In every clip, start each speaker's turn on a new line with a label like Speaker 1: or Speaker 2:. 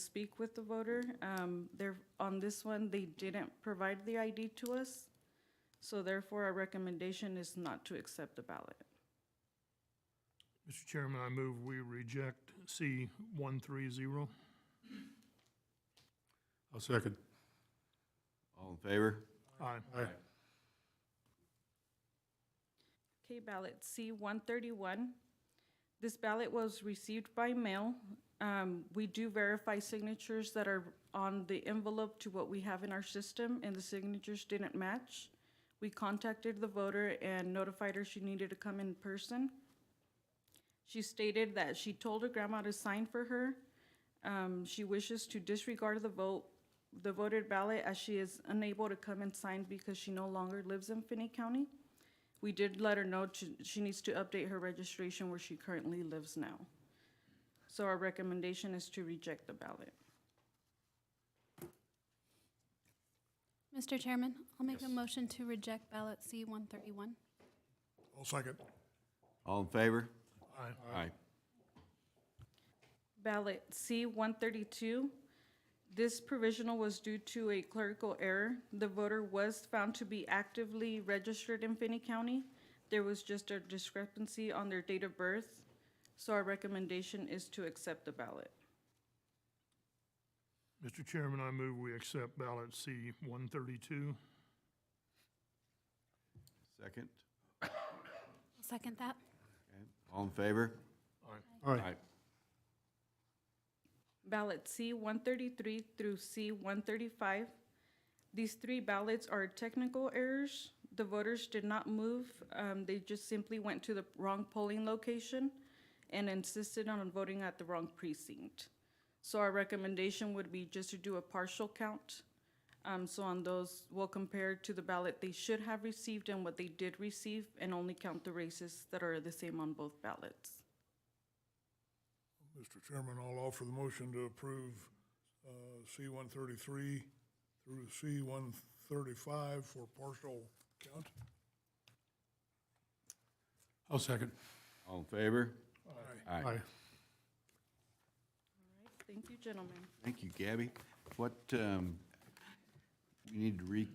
Speaker 1: speak with the voter. Um, There, on this one, they didn't provide the ID to us, so therefore our recommendation is not to accept the ballot.
Speaker 2: Mr. Chairman, I move we reject C one three zero.
Speaker 3: I'll second.
Speaker 4: All in favor?
Speaker 2: Aye.
Speaker 3: Aye.
Speaker 1: Okay, ballot C-131. This ballot was received by mail. Um, We do verify signatures that are on the envelope to what we have in our system, and the signatures didn't match. We contacted the voter and notified her she needed to come in person. She stated that she told her grandma to sign for her. Um, She wishes to disregard the vote, the voted ballot, as she is unable to come and sign because she no longer lives in Finney County. We did let her know to- she needs to update her registration where she currently lives now. So our recommendation is to reject the ballot.
Speaker 5: Mr. Chairman, I'll make a motion to reject ballot C-131.
Speaker 2: I'll second.
Speaker 4: All in favor?
Speaker 2: Aye.
Speaker 4: Aye.
Speaker 1: Ballot C-132, this provisional was due to a clerical error. The voter was found to be actively registered in Finney County. There was just a discrepancy on their date of birth, so our recommendation is to accept the ballot.
Speaker 2: Mr. Chairman, I move we accept ballot C one thirty-two.
Speaker 4: Second?
Speaker 5: I'll Second that.
Speaker 4: Okay. All in favor?
Speaker 3: Aye.
Speaker 1: ballot C-133 through C-135. These three ballots are technical errors. The voters did not move. Um, They just simply went to the wrong polling location and insisted on voting at the wrong precinct. So our recommendation would be just to do a partial count. Um, So on those, we'll compare to the ballot they should have received and what they did receive, and only count the races that are the same on both ballots.
Speaker 6: Mr. Chairman, I'll offer the motion to approve uh, C one thirty-three through C one thirty-five for partial count.
Speaker 3: I'll second.
Speaker 4: All in favor? Aye.
Speaker 1: All right, Thank you, gentlemen.
Speaker 4: Thank you, Gabby. What, um, we need to re,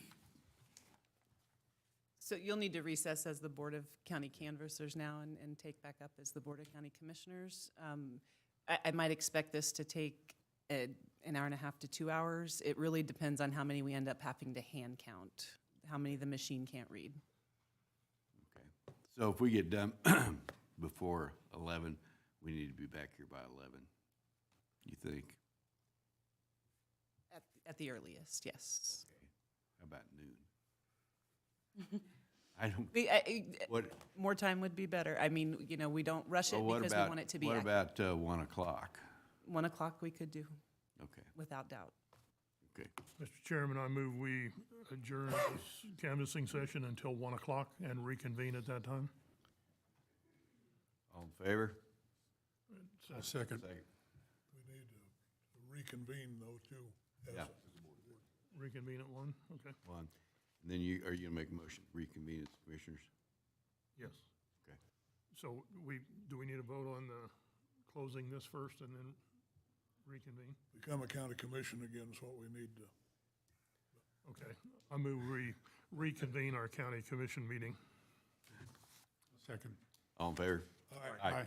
Speaker 7: So you'll need to recess as the Board of County Canvassers now and, and take back up as the Board of County Commissioners. Um, I, I might expect this to take uh, an hour and a half to two hours. It really depends on how many we end up having to hand count, how many the machine can't read.
Speaker 4: okay. So if we get done before eleven, we need to be back here by eleven, you think?
Speaker 7: At, at the earliest, yes.
Speaker 4: How about noon? I don't,
Speaker 7: The, I- I-
Speaker 4: what,
Speaker 7: more time would be better. I mean, you know, we don't rush it
Speaker 4: well, what
Speaker 7: because we
Speaker 4: about,
Speaker 7: want it to be.
Speaker 4: what
Speaker 7: ac-
Speaker 4: about, uh, one o'clock?
Speaker 7: One o'clock we could do,
Speaker 4: Okay,
Speaker 7: without doubt.
Speaker 4: okay.
Speaker 2: Mr. Chairman, I move we adjourn this canvassing session until one o'clock and reconvene at that time.
Speaker 4: All in favor?
Speaker 3: I'll second.
Speaker 4: Second.
Speaker 6: We need to reconvene though too. as-
Speaker 4: Yeah,
Speaker 2: Reconvene at one, okay?
Speaker 4: one. And then you, are you gonna make a motion to reconvene as commissioners?
Speaker 2: Yes.
Speaker 4: Okay.
Speaker 2: So we, do we need a vote on the closing this first and then reconvene?
Speaker 6: Become a county commission again is what we need to.
Speaker 2: Okay, I move we reconvene our county commission meeting.
Speaker 3: Second.
Speaker 4: All in favor? Aye.
Speaker 3: Aye.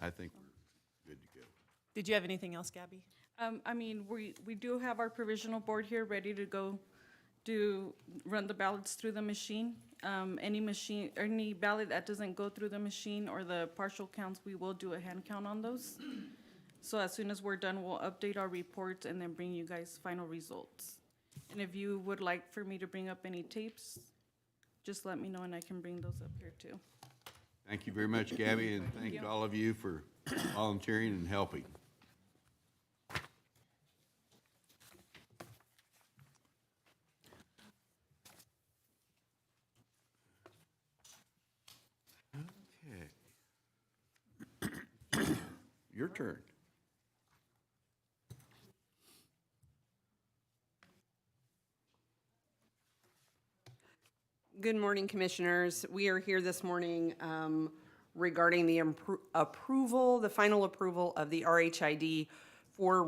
Speaker 4: I think we're good to go.
Speaker 7: Did you have anything else, Gabby?
Speaker 1: Um, I mean, we, we do have our provisional board here ready to go do, run the ballots through the machine. Um, any machine, or any ballot that doesn't go through the machine or the partial counts, we will do a hand count on those. So as soon as we're done, we'll update our reports and then bring you guys final results. And if you would like for me to bring up any tapes, just let me know and I can bring those up here too.
Speaker 4: Thank you very much, Gabby, and thank all of you for volunteering and helping. Okay. Your turn.
Speaker 8: Good morning, Commissioners. We are here this morning um, regarding the appro- approval, the final approval of the RHID for